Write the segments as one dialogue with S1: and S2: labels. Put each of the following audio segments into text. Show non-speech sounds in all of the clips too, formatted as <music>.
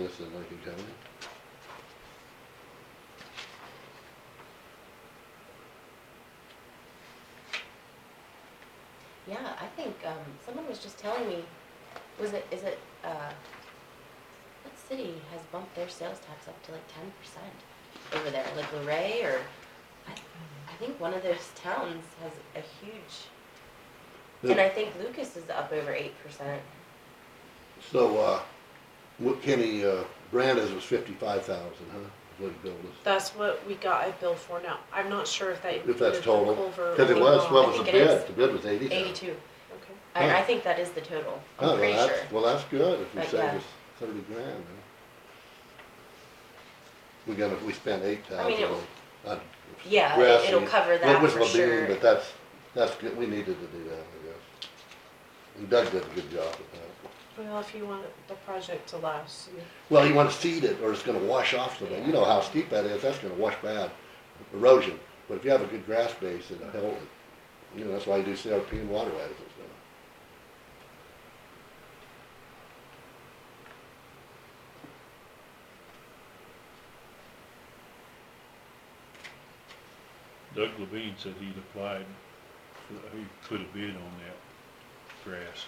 S1: List of Lincoln County.
S2: Yeah, I think, um, someone was just telling me, was it, is it, uh, what city has bumped their sales tax up to like ten percent over there, like Luray or, I, I think one of those <laughs> towns has a huge, and I think Lucas is up over eight percent.
S1: So, uh, what Kenny, uh, Brandis was fifty-five thousand, huh, is what he billed us.
S3: That's what we got a bill for now. I'm not sure if that
S1: If that's
S3: included
S1: total,
S3: Culver.
S1: cause it
S3: or
S1: was,
S3: not.
S1: what
S2: I
S1: was the
S2: think it
S1: bid?
S2: is.
S1: The bid was eighty thousand.
S2: Eighty-two.
S3: Okay.
S2: I, I
S1: Huh.
S2: think that is the total,
S1: Oh,
S2: I'm pretty
S1: well,
S2: sure.
S1: that's- Well, that's good, if we
S2: But,
S1: save
S2: yeah.
S1: us thirty grand, huh? We got, a- we spent eight
S2: I mean,
S1: thousand
S2: it-
S1: on, on
S2: Yeah,
S1: grass
S2: it- it'll
S1: seed.
S2: cover
S1: Well,
S2: that
S1: with
S2: for
S1: Labine,
S2: sure.
S1: But that's, that's good, we needed to do that, I guess. And Doug did a good job with that.
S3: Well, if you want the project to last, you-
S1: Well, you wanna seed it, or it's gonna wash off the, you know how steep that is, that's gonna wash bad, erosion. But if you have a good grass base, it'll help, it. you know, that's why you do CRP and waterways and stuff.
S4: Doug Levine said he'd applied, for- he put a bid on that grass.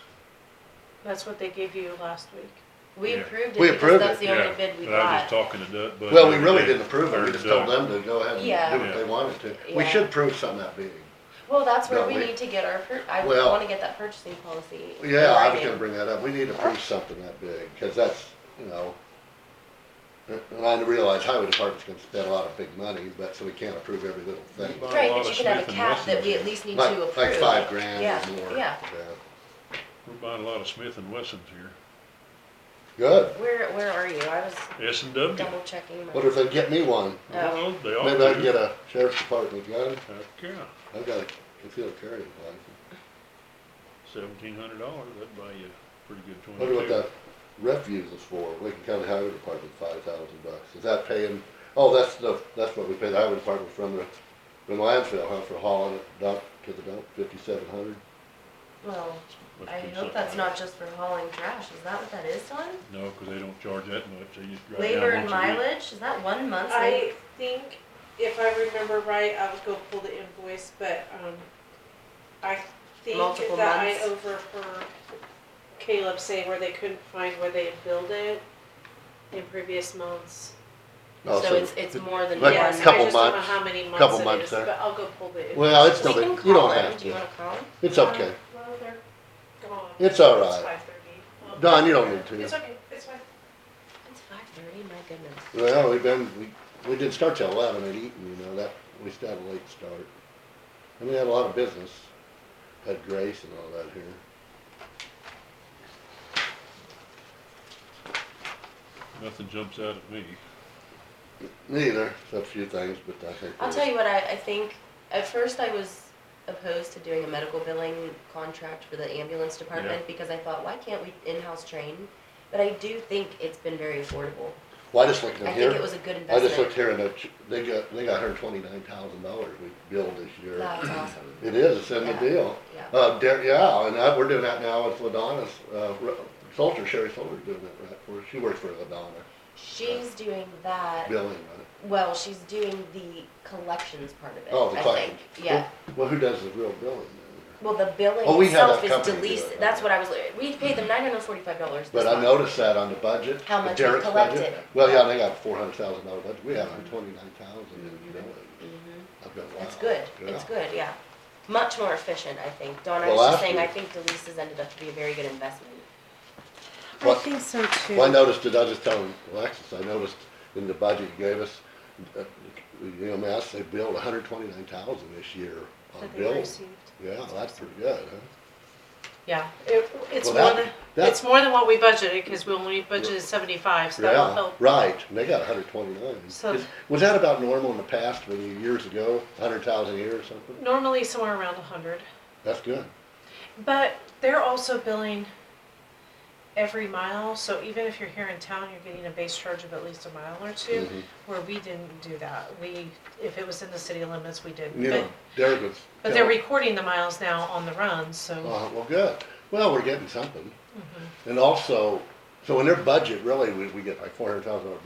S3: that's what they gave you last week.
S2: We
S4: Yeah.
S2: approved it
S1: We
S2: because
S1: approved
S2: that's
S1: it,
S2: the only
S4: Yeah,
S2: bid we
S4: But I was just
S2: got.
S4: talking to Doug. Bud
S1: Well, we
S4: the other
S1: really
S4: day,
S1: didn't approve it,
S4: or
S1: we just
S4: Doug.
S1: told them to go ahead and
S2: Yeah.
S1: do what they
S4: Yeah.
S1: wanted to. We
S2: Yeah.
S1: should approve something that big.
S2: Well, that's where
S1: No,
S2: we
S1: we-
S2: need to get our, pur- I
S1: Well-
S2: wanna get that purchasing policy.
S1: Yeah, I was
S2: writing.
S1: gonna bring that up, we need to approve something that big, cause that's, you know. And I realize highway department's gonna spend a lot of big money, but, so we can't approve every little thing.
S4: Well,
S2: Right,
S4: a
S2: but
S4: lot
S2: you
S4: of
S2: can have a
S4: Smith and
S2: cap that we at
S4: Wesson.
S2: least need to approve.
S1: Like, like five grand
S2: Yeah,
S1: or more.
S2: Yeah,
S4: We're buying a lot of Smith and Wessons here.
S1: Good.
S2: where, where are you? I was
S4: S and W.
S2: double Oh. checking. my-
S1: What if they get me one?
S4: Well, they all do.
S1: Maybe I can get a sheriff's department gun.
S4: Heck, yeah,
S1: I've got a concealed carry license.
S4: seventeen hundred dollars, that'd buy you a pretty good twenty-two.
S1: Wonder what that refuse is for. Lincoln County Highway Department, five thousand bucks. Is that paying, oh, that's the, that's what we pay the highway department from the, from the landfill, huh, for hauling it dump to the dump, fifty-seven hundred?
S2: Well,
S4: Must
S2: I
S4: be
S2: hope
S4: something
S2: that's
S4: like-
S2: not just for hauling trash. Is that what that is, Don?
S4: No, cause they don't charge that much, they just drive down
S2: Labor and
S4: once a week.
S2: mileage? Is that one month's? like-
S3: I think, if I remember right, I was gonna pull the invoice, but, um, I
S2: Multiple
S3: think that I
S2: months.
S3: overheard Caleb say where they couldn't find where they had billed it in previous months.
S2: So it's, it's more than one.
S1: Oh, Like,
S3: Yes, I
S1: couple
S3: just don't know
S1: months,
S3: how many
S1: couple
S3: months it
S1: months
S3: is,
S1: there.
S3: but I'll go pull the invoice.
S1: Well, it's no
S2: We can
S1: big, you
S2: call
S1: don't
S2: him.
S1: have
S2: Do you
S1: to.
S2: wanna call him?
S1: It's okay.
S3: Well, they're gone.
S1: It's all right.
S3: five thirty.
S1: Don, you don't need to.
S3: It's okay, it's fine.
S2: It's five thirty, my goodness.
S1: Well, we've been, we, we didn't start till eleven at Eaton, you know, that, we still had a late start. And we had a lot of business, had Grace and all that here.
S4: Nothing jumps out at me.
S1: Neither, except a few things, but I think.
S2: I'll tell you what, I, I think, at first I was opposed to doing a medical billing contract for the ambulance department because I thought, why can't we in-house train? But I do think it's been very affordable.
S1: Well, I just looked in
S2: I
S1: here.
S2: think it was a good
S1: I just
S2: investment.
S1: looked here and it- they got, they got hundred twenty-nine thousand dollars we billed this year.
S2: That's
S1: <clears throat>
S2: awesome.
S1: It is, it's in the
S2: Yeah.
S1: deal.
S2: Yeah.
S1: Uh, Dar- yeah, and that, we're doing that now with Ladonna's, uh, Re- Solter, Sherry Solter's doing that right for, us. she works for Ladonna,
S2: She's doing that.
S1: billing, right?
S2: Well, she's doing the collections part of it.
S1: Oh, the
S2: I
S1: collections.
S2: think. Yeah.
S1: Well, who does the real billing then?
S2: Well, the billing
S1: Oh, we had
S2: itself
S1: that
S2: is
S1: company do
S2: delisted.
S1: it.
S2: That's what I was. We paid them nine hundred forty-five dollars.
S1: But I noticed that on the budget.
S2: How
S1: the
S2: much we
S1: Derek's budget.
S2: collected.
S1: Well, yeah, they got four hundred thousand dollar budget, we had hundred twenty-nine thousand in billing.
S2: Mm-hmm.
S1: I've been, wow.
S2: It's good. It's
S1: Yeah.
S2: good. Yeah. Much more efficient, I think. Don, I
S1: Well,
S2: was just
S1: last
S2: saying,
S1: year-
S2: I think Delisa's ended up to be a very good investment.
S1: Well-
S5: I think so too.
S1: Well, I noticed it, I was just telling Alexis, I noticed in the budget you gave us, uh, you know, I mean, I say billed hundred twenty-nine thousand this year on
S3: That they
S1: bills.
S3: received.
S1: Yeah, that's pretty good, huh?
S3: Yeah, it, it's
S1: Well,
S3: more
S1: that-
S3: than,
S1: that-
S3: it's more than what we budgeted, cause we only budgeted seventy-five, so that will
S1: Yeah,
S3: help.
S1: right, and they got hundred twenty-nine.
S3: So-
S1: Was that about normal in the past, when you, years ago, hundred thousand a year or something?
S3: Normally somewhere around a hundred,
S1: That's good.
S3: but they're also billing every mile, so even if you're here in town, you're getting a base charge of at least a mile or two,
S1: Mhm.
S3: where we didn't do that. We, if it was in the city limits, we didn't,
S1: You
S3: but,
S1: know, Derek was.
S3: but they're
S1: telling- Uh-huh,
S3: recording the miles now on the run, so. Mm-hmm.
S1: Uh, well, good. Well, we're getting something. And also, So in their budget, really, we, we get like four hundred thousand dollars